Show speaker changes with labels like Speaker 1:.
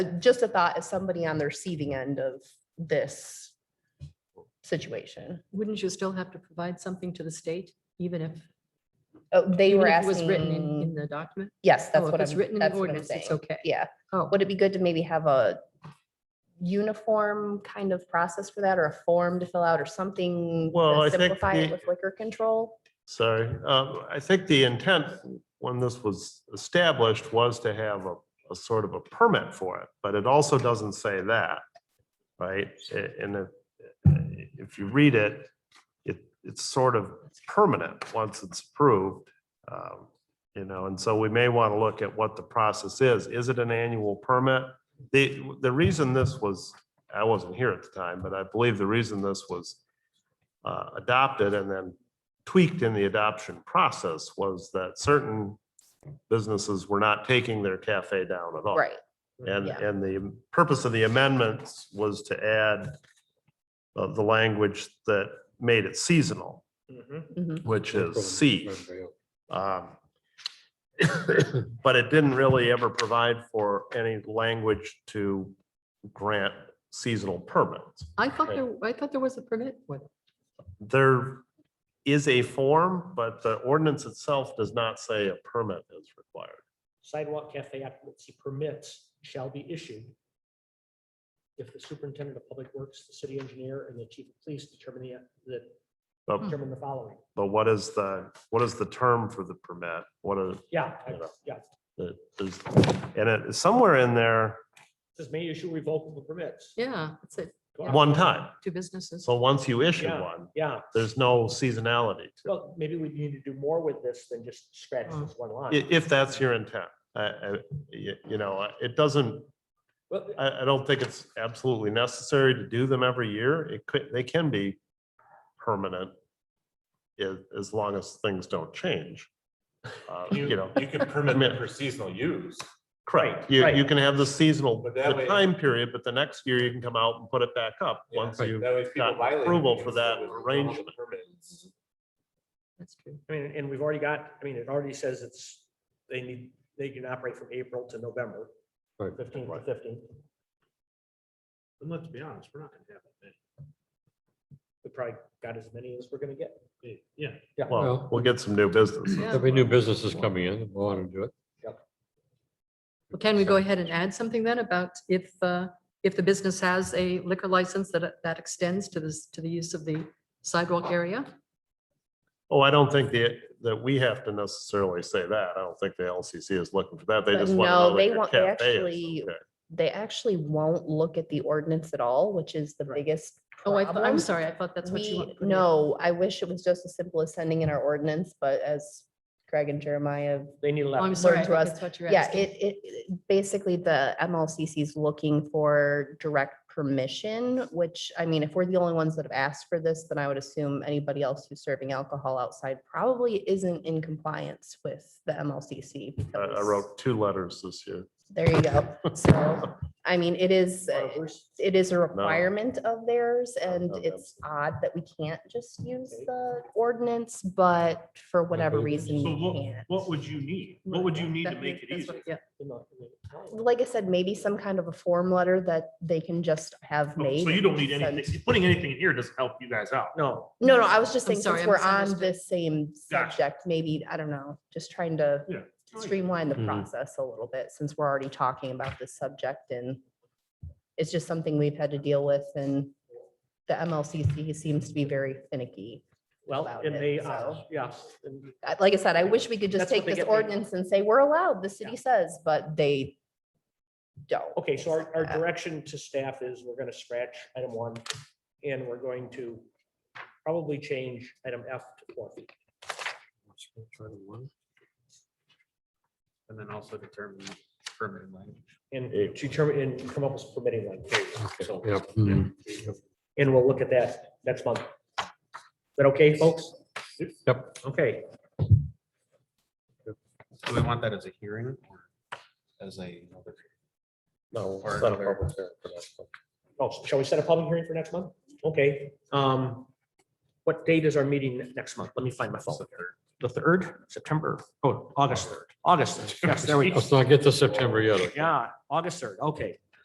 Speaker 1: just a thought as somebody on the receiving end of this situation.
Speaker 2: Wouldn't you still have to provide something to the state, even if?
Speaker 1: Oh, they
Speaker 2: even
Speaker 1: were
Speaker 2: if it Was written in, in
Speaker 1: asking,
Speaker 2: the document?
Speaker 1: yes,
Speaker 2: Oh,
Speaker 1: that's
Speaker 2: if
Speaker 1: what
Speaker 2: it's
Speaker 1: I'm,
Speaker 2: written in
Speaker 1: that's
Speaker 2: the
Speaker 1: what I'm
Speaker 2: ordinance,
Speaker 1: saying.
Speaker 2: it's okay.
Speaker 1: Yeah.
Speaker 2: Oh,
Speaker 1: Would it be good to maybe have a uniform kind of process for that or a form to fill out or something? to
Speaker 3: Well, I think
Speaker 1: Simplify it
Speaker 3: the-
Speaker 1: with liquor control?
Speaker 3: Sorry, um, I think the intent when this was established was to have a, a sort of a permit for it, but it also doesn't say that. Right? A- And if, if you read it, it, it's sort of permanent once it's approved. um, You know, and so we may want to look at what the process is. Is it an annual permit? The, the reason this was, I wasn't here at the time, but I believe the reason this was uh, adopted and then tweaked in the adoption process was that certain businesses were not taking their cafe down at all.
Speaker 1: Right.
Speaker 3: And,
Speaker 1: Yeah.
Speaker 3: and the purpose of the amendments was to add uh, the language that made it seasonal,
Speaker 4: Mm-hmm.
Speaker 1: Mhm.
Speaker 3: which is C. Um, But it didn't really ever provide for any language to grant seasonal permits.
Speaker 2: I thought there, I thought there was a permit. What?
Speaker 3: There is a form, but the ordinance itself does not say a permit is required.
Speaker 4: Sidewalk cafe occupancy permits shall be issued if the superintendent of public works, the city engineer, and the chief of police determine the, that
Speaker 3: But,
Speaker 4: determine the following.
Speaker 3: but what is the, what is the term for the permit? What is,
Speaker 4: Yeah, I- yeah.
Speaker 3: the- is, and it, somewhere in there,
Speaker 4: This may issue revocable permits.
Speaker 2: Yeah, it's it,
Speaker 3: one time.
Speaker 2: two businesses.
Speaker 3: So once you issue
Speaker 4: Yeah.
Speaker 3: one,
Speaker 4: Yeah,
Speaker 3: there's no seasonality to it,
Speaker 4: well, maybe we need to do more with this than just scratch this one line.
Speaker 3: i- if that's your intent. I, I, you, you know, it doesn't,
Speaker 4: Well,
Speaker 3: I, I don't think it's absolutely necessary to do them every year. It could, they can be permanent as, as long as things don't change. Uh,
Speaker 5: You,
Speaker 3: You know,
Speaker 5: you can permit them for seasonal use,
Speaker 3: correct. You, you
Speaker 4: right.
Speaker 3: can have the seasonal,
Speaker 5: But that
Speaker 3: the
Speaker 5: way-
Speaker 3: time period, but the next year you can come out and put it back up once
Speaker 5: That
Speaker 3: you.
Speaker 5: way if people
Speaker 3: got
Speaker 5: violate it,
Speaker 3: approval
Speaker 5: you
Speaker 3: for
Speaker 5: can
Speaker 3: that
Speaker 5: still revoke the
Speaker 3: arrangement.
Speaker 5: permits.
Speaker 2: That's true.
Speaker 4: I mean, and we've already got, I mean, it already says it's, they need, they can operate from April to November,
Speaker 3: Right.
Speaker 4: fifteenth to fifteenth.
Speaker 6: And let's be honest, we're not gonna have that
Speaker 4: We probably got as many as we're gonna get.
Speaker 6: many. Yeah,
Speaker 3: Well,
Speaker 7: Well-
Speaker 3: we'll get some new business.
Speaker 2: Yeah.
Speaker 7: There'll be new businesses coming in, we'll want to do it.
Speaker 2: Well, Can we go ahead and add something then about if, uh, if the business has a liquor license that, that extends to this, to the use of the sidewalk area?
Speaker 3: Oh, I don't think that, that we have to necessarily say that. I don't think the LCC is looking for that. They just want to
Speaker 1: No,
Speaker 3: know.
Speaker 1: they
Speaker 3: that your
Speaker 1: want- they
Speaker 3: cafe is
Speaker 1: actually-
Speaker 3: okay.
Speaker 1: They actually won't look at the ordinance at all, which is the biggest.
Speaker 2: Oh, I, thought- I'm
Speaker 1: problem.
Speaker 2: sorry, I thought that's what
Speaker 1: We,
Speaker 2: you. want.
Speaker 1: no, I wish it was just as simple as sending in our ordinance, but as Greg and Jeremiah have
Speaker 4: They need a
Speaker 2: Oh,
Speaker 4: lot.
Speaker 2: I'm sorry, I
Speaker 1: learned to
Speaker 2: think
Speaker 1: us.
Speaker 2: that's what you're
Speaker 1: Yeah,
Speaker 2: asking.
Speaker 1: it, it, it- basically the MLCC is looking for direct permission, which, I mean, if we're the only ones that have asked for this, then I would assume anybody else who's serving alcohol outside probably isn't in compliance with the MLCC.
Speaker 3: I, I
Speaker 1: because-
Speaker 3: wrote two letters this year.
Speaker 1: There you go. So, I mean, it is, uh,
Speaker 4: Ours.
Speaker 1: it is a requirement of theirs and
Speaker 3: no,
Speaker 1: it's odd that we can't just use the ordinance, but for whatever
Speaker 7: but-
Speaker 1: reason,
Speaker 6: So
Speaker 1: we
Speaker 6: what,
Speaker 1: can't.
Speaker 6: what would you need? What would you need to
Speaker 2: That-
Speaker 6: make it
Speaker 2: that's what-
Speaker 6: easy?
Speaker 2: Yeah,
Speaker 1: like I said, maybe some kind of a form letter that they can just have
Speaker 6: Oh,
Speaker 1: made.
Speaker 6: So you
Speaker 1: and
Speaker 6: don't need
Speaker 1: send.
Speaker 6: anything, putting anything in here doesn't help you guys out.
Speaker 4: No,
Speaker 1: No, no, I was just
Speaker 2: I'm
Speaker 1: saying,
Speaker 2: sorry,
Speaker 1: since
Speaker 2: I
Speaker 1: we're on
Speaker 2: misunderstood.
Speaker 1: this same
Speaker 6: Gotcha.
Speaker 1: subject, maybe, I don't know, just trying to
Speaker 6: Yeah.
Speaker 1: streamline the
Speaker 7: Mhm.
Speaker 1: process a little bit, since we're already talking about this subject and it's just something we've had to deal with and the MLCC seems to be very finicky.
Speaker 4: well,
Speaker 1: Allowed
Speaker 4: and
Speaker 1: it,
Speaker 4: they,
Speaker 1: so.
Speaker 4: uh, yeah. and-
Speaker 1: Uh, Like I said, I wish we could just
Speaker 4: That's what
Speaker 1: take
Speaker 4: they
Speaker 1: this
Speaker 4: get paid.
Speaker 1: ordinance and say, we're allowed, the city says, but they don't.
Speaker 4: Okay, so our, our
Speaker 1: Uh,
Speaker 4: direction to staff is we're gonna scratch item one and we're going to probably change item F to four feet.
Speaker 6: And then also determine permanent language.
Speaker 4: And
Speaker 3: Yeah.
Speaker 4: to determine, and come up with permitting language. So,
Speaker 7: Yeah. mhm.
Speaker 4: and we'll look at that next month. Is that okay, folks?
Speaker 7: Yep.
Speaker 4: Okay,
Speaker 8: Do we want that as a hearing or as a?
Speaker 3: No.
Speaker 8: Or
Speaker 3: it's not a
Speaker 8: another-
Speaker 3: public hearing for that.
Speaker 4: oh, shall we set a public hearing for next month? Okay, um, what date is our meeting next month? Let me find my phone. The third, September, oh, August third, August, third. yes, there we go.
Speaker 7: Let's not get to September yet.
Speaker 4: Yeah, August third, okay.